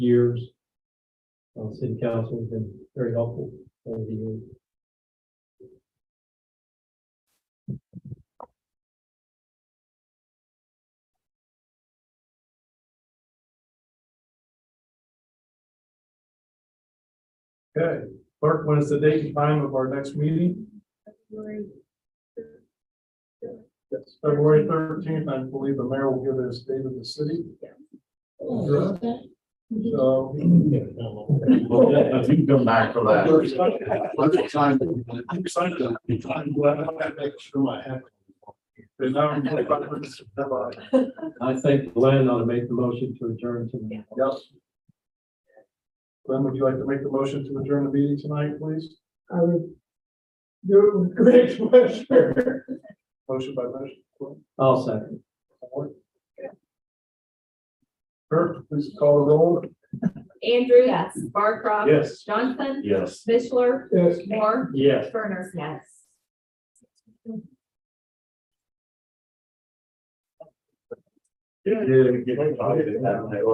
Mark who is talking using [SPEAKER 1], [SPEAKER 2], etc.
[SPEAKER 1] years. Uh, city council has been very helpful over the years.
[SPEAKER 2] Okay, clerk, what is the date and time of our next meeting?
[SPEAKER 3] February.
[SPEAKER 2] Yes. February thirteenth, I believe the mayor will give us date of the city. So.
[SPEAKER 4] Well, You can come back for that. Let's sign it.
[SPEAKER 2] I'm excited. I'm glad I had to make sure I had. And now I'm really glad we're just-
[SPEAKER 1] I think Glenn ought to make the motion to adjourn to the.
[SPEAKER 2] Yes. Glenn, would you like to make the motion to adjourn the meeting tonight, please?
[SPEAKER 5] I would do it with great pleasure.
[SPEAKER 2] Motion by motion.
[SPEAKER 1] I'll second.
[SPEAKER 2] Clerk, please call the roll.
[SPEAKER 3] Andrew. Yes. Barcroft.
[SPEAKER 2] Yes.
[SPEAKER 3] Johnson.
[SPEAKER 4] Yes.
[SPEAKER 3] Mishler.
[SPEAKER 5] Yes.
[SPEAKER 3] Moore.
[SPEAKER 1] Yes.
[SPEAKER 3] Turner. Yes.
[SPEAKER 4] Yeah, yeah, yeah.